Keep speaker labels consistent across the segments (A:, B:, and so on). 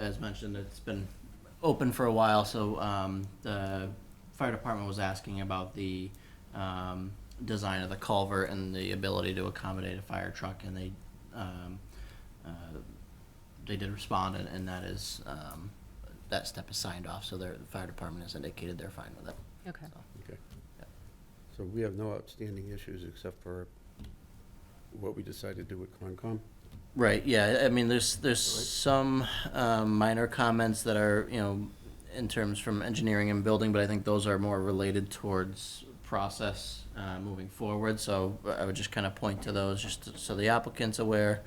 A: as mentioned, it's been open for a while, so, um, the fire department was asking about the, um, design of the culvert and the ability to accommodate a fire truck, and they, um, uh, they did respond, and, and that is, um, that step is signed off, so their, the fire department has indicated they're fine with it.
B: Okay.
A: so.
C: Okay.
A: Yep.
C: So we have no outstanding issues except for what we decided to do with Concom?
A: Right, yeah, I mean, there's, there's
C: Right.
A: some um, minor comments that are, you know, in terms from engineering and building, but I think those are more related towards process uh, moving forward, so uh, I would just kind of point to those, just to- so the applicant's aware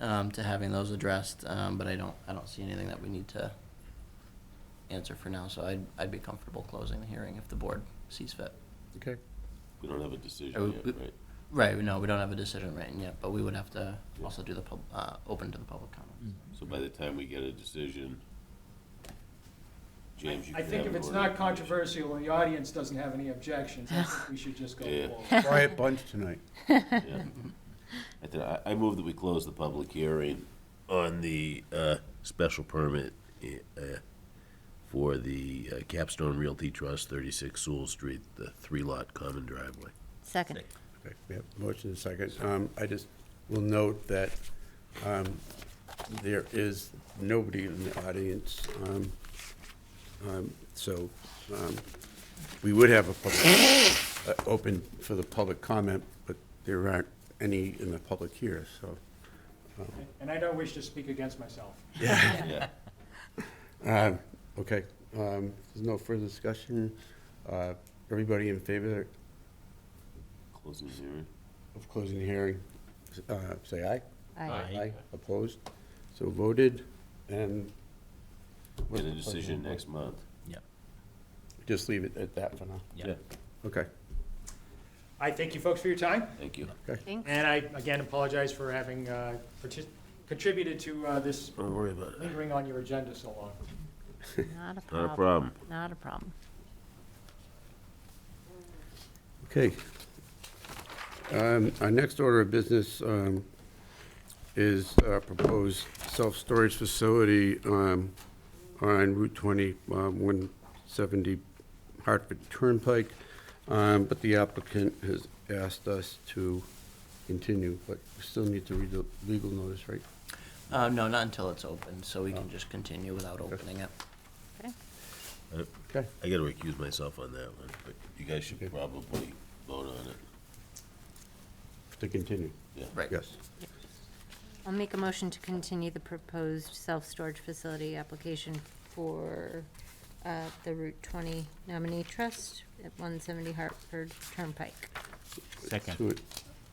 A: um, to having those addressed, um, but I don't, I don't see anything that we need to answer for now, so I'd, I'd be comfortable closing the hearing if the board sees fit.
C: Okay.
D: We don't have a
A: Are we-
D: decision
A: we-
D: yet, right?
A: Right, no, we don't have a decision written yet, but we would have to also do the, pub- uh, open to the public comment.
D: So by the time we get a decision, James, you
E: I
D: can
E: think
D: have
E: if
D: an
E: it's
D: order
E: not
D: of
E: controversial and the audience doesn't have any objections, I think we should just go
D: Yeah.
E: forward.
C: Quiet bunch tonight.
D: conditions, yeah. I think, I, I move that we close the public hearing on the, uh, special permit, uh, for the uh, Capstone Realty Trust, thirty-six Sewell Street, the three-lot common driveway.
B: Second.
C: Okay, we have motion and second. Um, I just will note that, um, there is nobody in the audience. Um, um, so, um, we would have a public, uh, open for the public comment, but there aren't any in the public here, so.
E: And I don't wish to speak against myself.
D: Yeah.
C: Um, Okay, um, there's no further discussion. Uh, Everybody in favor
D: Closing the hearing.
C: of closing the hearing, uh, say aye.
B: Aye.
C: Opposed? So voted, and.
D: Get a decision next month.
C: Just leave it at that for now.
D: Yeah.
C: Okay,
E: I thank you folks for your time,
D: Thank you.
B: Thanks.
E: and I, again, apologize for having uh, partic- contributed to uh, this
D: Don't worry about it.
E: lingering on your agenda so long.
B: Not a
E: Uh,
D: Not a
B: problem.
D: problem.
B: Not a problem.
C: okay. Um, Our next order of business um, is uh, proposed self-storage facility um, on Route 20, um, 170 Hartford Turnpike, Um, but the applicant has asked us to continue, but we still need to read the legal notice, right?
A: Uh, no, not until it's open, so we can just continue without opening it.
B: Okay.
C: Okay.
D: I gotta recuse myself on that one, but you guys should
C: Okay.
D: probably vote on it,
C: To continue,
D: yeah.
A: Right.
C: yes.
B: I'll make a motion to continue the proposed self-storage facility application for uh, the Route 20 nominee trust at 170 Hartford Turnpike
C: To a-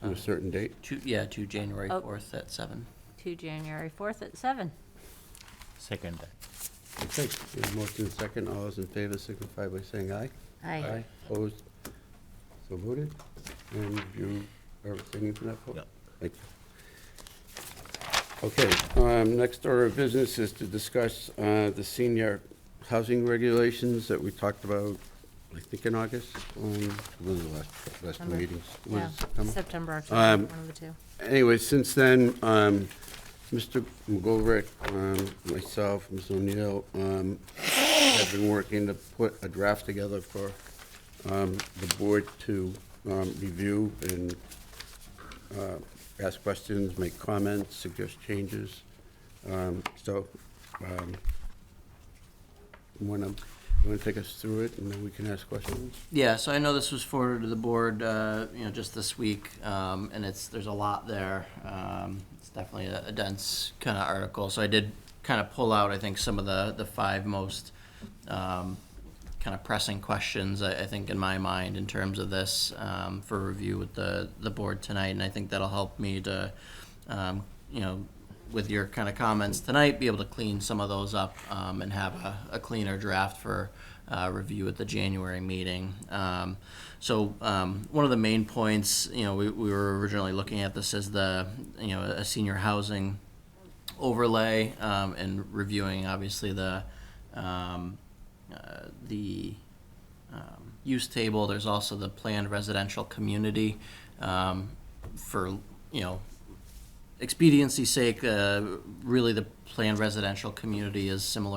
C: to a certain date.
A: To, yeah, to January
B: Oh.
A: fourth at seven.
B: to January 4th at seven.
F: Second.
C: Okay, we have motion and second, all those in favor signify by saying aye.
B: Aye.
C: Opposed, so voted, and you are abstaining from that vote?
D: Yep.
C: Thank you. Okay, um, next order of business is to discuss, uh, the senior housing regulations that we talked about, I think in August, um, one of the last, last
B: September.
C: meetings. was
B: Yeah,
C: it September?
B: September,
C: Um,
B: October, one of the two.
C: Anyway, since then, um, Mr. McGolrick, um, myself, Ms. O'Neill, um, have been working to put a draft together for, um, the board to, um, review and, uh, ask questions, make comments, suggest changes. Um, so, um, wanna, you wanna take us through it and then we can ask questions?
A: Yeah, so I know this was forwarded to the board, uh, you know, just this week, um, and it's, there's a lot there. Um, it's definitely a, a dense kind of article, so I did kind of pull out, I think, some of the, the five most, um, kind of pressing questions, I, I think, in my mind in terms of this, um, for review with the, the board tonight, and I think that'll help me to, um, you know, with your kind of comments tonight, be able to clean some of those up, um, and have a, a cleaner draft for, uh, review at the January meeting. Um, so, um, one of the main points, you know, we, we were originally looking at this as the, you know, a senior housing, overlay um, and reviewing obviously the um, uh, the um, use table. There's also the planned residential community um, for you know expediency sake, uh, really the planned residential community is similar